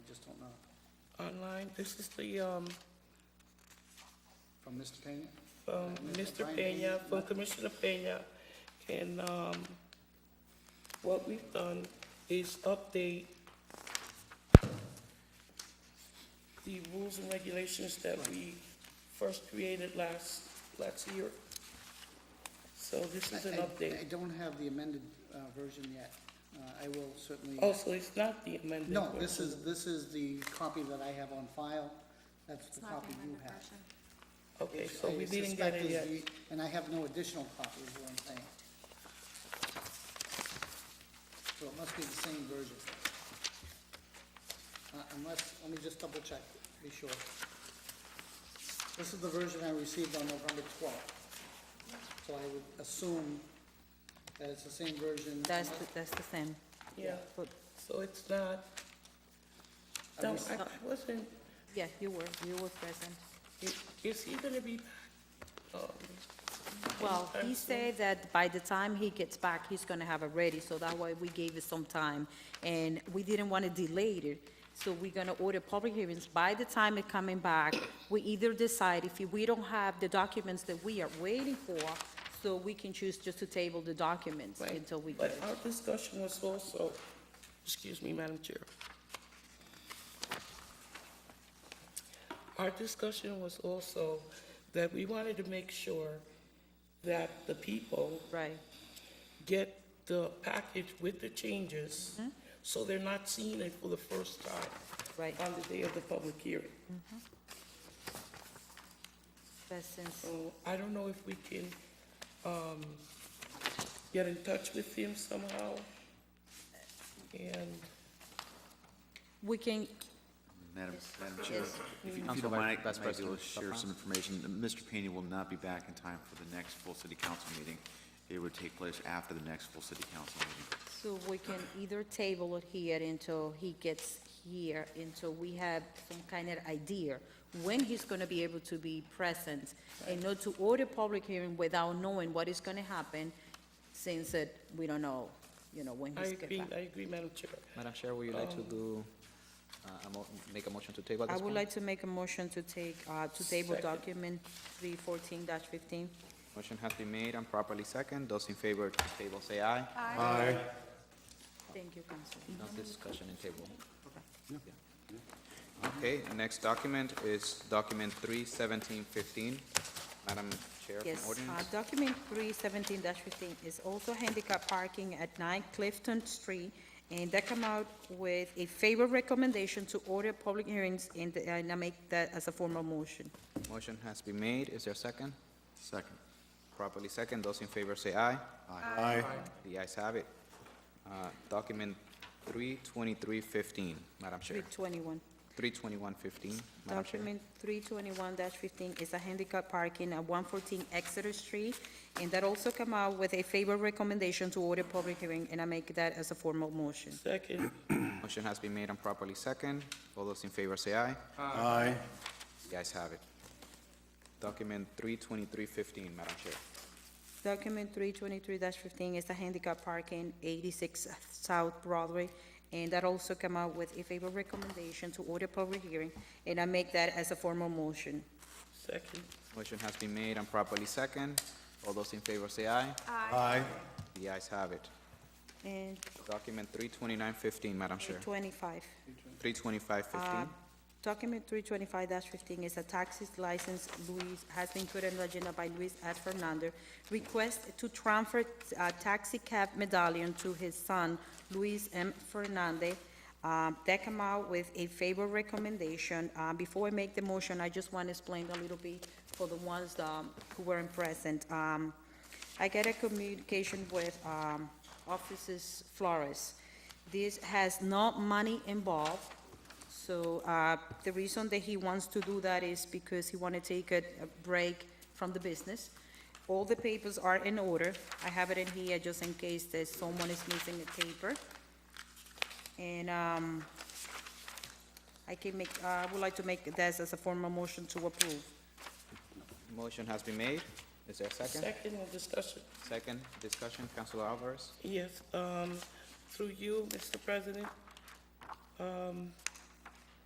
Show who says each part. Speaker 1: online. This is the, um,
Speaker 2: From Mr. Pena?
Speaker 1: from Mr. um, Peña, from Commissioner Peña. And, um, what we've done is update the rules and regulations that we first created last, last year. So this is an
Speaker 2: I- I- I
Speaker 1: update.
Speaker 2: don't have the amended uh, version yet. Uh, I will certainly.
Speaker 1: Also, it's not the amended.
Speaker 2: No,
Speaker 1: one.
Speaker 2: this is, this is the copy that I have on file. That's the
Speaker 3: not the
Speaker 2: copy you
Speaker 3: amended
Speaker 2: have.
Speaker 3: version.
Speaker 1: Okay,
Speaker 2: Which
Speaker 1: so
Speaker 2: I
Speaker 1: we didn't get
Speaker 2: suspect
Speaker 1: it
Speaker 2: is
Speaker 1: yet.
Speaker 2: the- And I have no additional copies, is what I'm saying. So it must be the same version. Uh, Unless, let me just double check, be sure. This is the version I received on November twelfth. So I would assume that it's the same version.
Speaker 4: That's, the- that's the same.
Speaker 1: Yeah,
Speaker 4: But,
Speaker 1: so it's not,
Speaker 2: I
Speaker 1: no,
Speaker 2: rec-
Speaker 1: I I wasn't,
Speaker 4: yeah, you were, you were present.
Speaker 1: i- is he gonna be, um,
Speaker 4: Well,
Speaker 1: I'm
Speaker 4: he
Speaker 1: sorry.
Speaker 4: said that by the time he gets back, he's gonna have it ready, so that way we gave it some time. And we didn't wanna delay it, so we're gonna order public hearings. By the time it coming back, we either decide if we don't have the documents that we are waiting for, so we can choose just to table the documents
Speaker 1: Right.
Speaker 4: until we get
Speaker 1: But
Speaker 4: it.
Speaker 1: our discussion was also, excuse me, Madam Chair. Our discussion was also that we wanted to make sure that the people
Speaker 4: Right,
Speaker 1: get the package with the changes,
Speaker 4: Mm-hmm.
Speaker 1: so they're not seeing it for the first time
Speaker 4: right.
Speaker 1: on the day of the public hearing.
Speaker 4: But since,
Speaker 1: So I don't know if we can, um, get in touch with him somehow. And,
Speaker 4: we can,
Speaker 5: Madam, Madam Chair,
Speaker 4: yes,
Speaker 5: if you- if you
Speaker 6: Council
Speaker 5: don't mind, I
Speaker 6: Vice- Vice
Speaker 5: might be able
Speaker 6: President
Speaker 5: to share some information. Mr. Pena will not be back in time for the next full city council meeting. It would take place after the next full city council meeting.
Speaker 4: So we can either table it here until he gets here, until we have some kind of idea when he's gonna be able to be present, and not to order public hearing without knowing what is gonna happen, since that we don't know, you know, when
Speaker 1: I
Speaker 4: he's
Speaker 1: agree,
Speaker 4: gonna
Speaker 1: I
Speaker 4: back.
Speaker 1: agree, Madam Chair.
Speaker 6: Madam Chair, would you like to do, uh, a mo- make a motion to table at
Speaker 4: Oh. I
Speaker 6: this
Speaker 4: would
Speaker 6: point?
Speaker 4: like to make a motion to take, uh, to table
Speaker 1: Second.
Speaker 4: document three fourteen fifteen.
Speaker 6: Motion has been made and properly second. Those in favor to table say aye.
Speaker 4: Thank you, Council.
Speaker 6: No discussion in table. Yeah. Okay, next document is document three seventeen fifteen. Madam Chair, from
Speaker 4: Yes, uh,
Speaker 6: ordinance.
Speaker 4: document three seventeen fifteen is also handicap parking at nine Clifton Street, and they come out with a favor recommendation to order public hearings, and the- uh, and I make that as a formal motion.
Speaker 6: Motion has been made. Is there a second?
Speaker 5: Second.
Speaker 6: Properly second. Those in favor say aye.
Speaker 5: Aye.
Speaker 6: The ayes have it. Uh, document three twenty-three fifteen, Madam
Speaker 4: Three
Speaker 6: Chair.
Speaker 4: twenty-one.
Speaker 6: Three twenty-one fifteen, Madam Chair.
Speaker 4: Document three twenty-one fifteen is a handicap parking at one fourteen Exeter Street, and that also come out with a favor recommendation to order public hearing, and I make that as a formal motion.
Speaker 1: Second,
Speaker 6: Motion has been made and properly second. All those in favor say aye.
Speaker 5: Aye.
Speaker 6: The ayes have it. Document three twenty-three fifteen, Madam Chair.
Speaker 4: Document three twenty-three fifteen is the handicap parking, eighty-six South Broadway, and that also come out with a favorable recommendation to order public hearing, and I make that as a formal motion.
Speaker 1: second,
Speaker 6: Motion has been made and properly second. All those in favor say aye.
Speaker 5: Aye.
Speaker 6: The ayes have it.
Speaker 4: And
Speaker 6: Document three twenty-nine fifteen, Madam
Speaker 4: three
Speaker 6: Chair.
Speaker 4: twenty-five.
Speaker 6: Three twenty-five fifteen.
Speaker 4: Document Uh, three twenty-five fifteen is a taxi license Luis, has been put on the agenda by Luis S. Fernando. Request to transfer uh, taxi cab medallion to his son, Luis M. Fernandez. Um, That come out with a favorable recommendation. Uh, Before I make the motion, I just want to explain a little bit for the ones um, who weren't present. Um, I get a communication with um, Offices Flores. This has no money involved. So uh, the reason that he wants to do that is because he want to take a a break from the business. All the papers are in order. I have it in here just in case that someone is missing a paper. And um, I can make, uh, I would like to make this as a formal motion to approve.
Speaker 6: Motion has been made. Is there a Uh, second?
Speaker 1: second on discussion.
Speaker 6: Second discussion, Councilor Alvarez.
Speaker 1: Yes, um, through you, Mr. President. Um,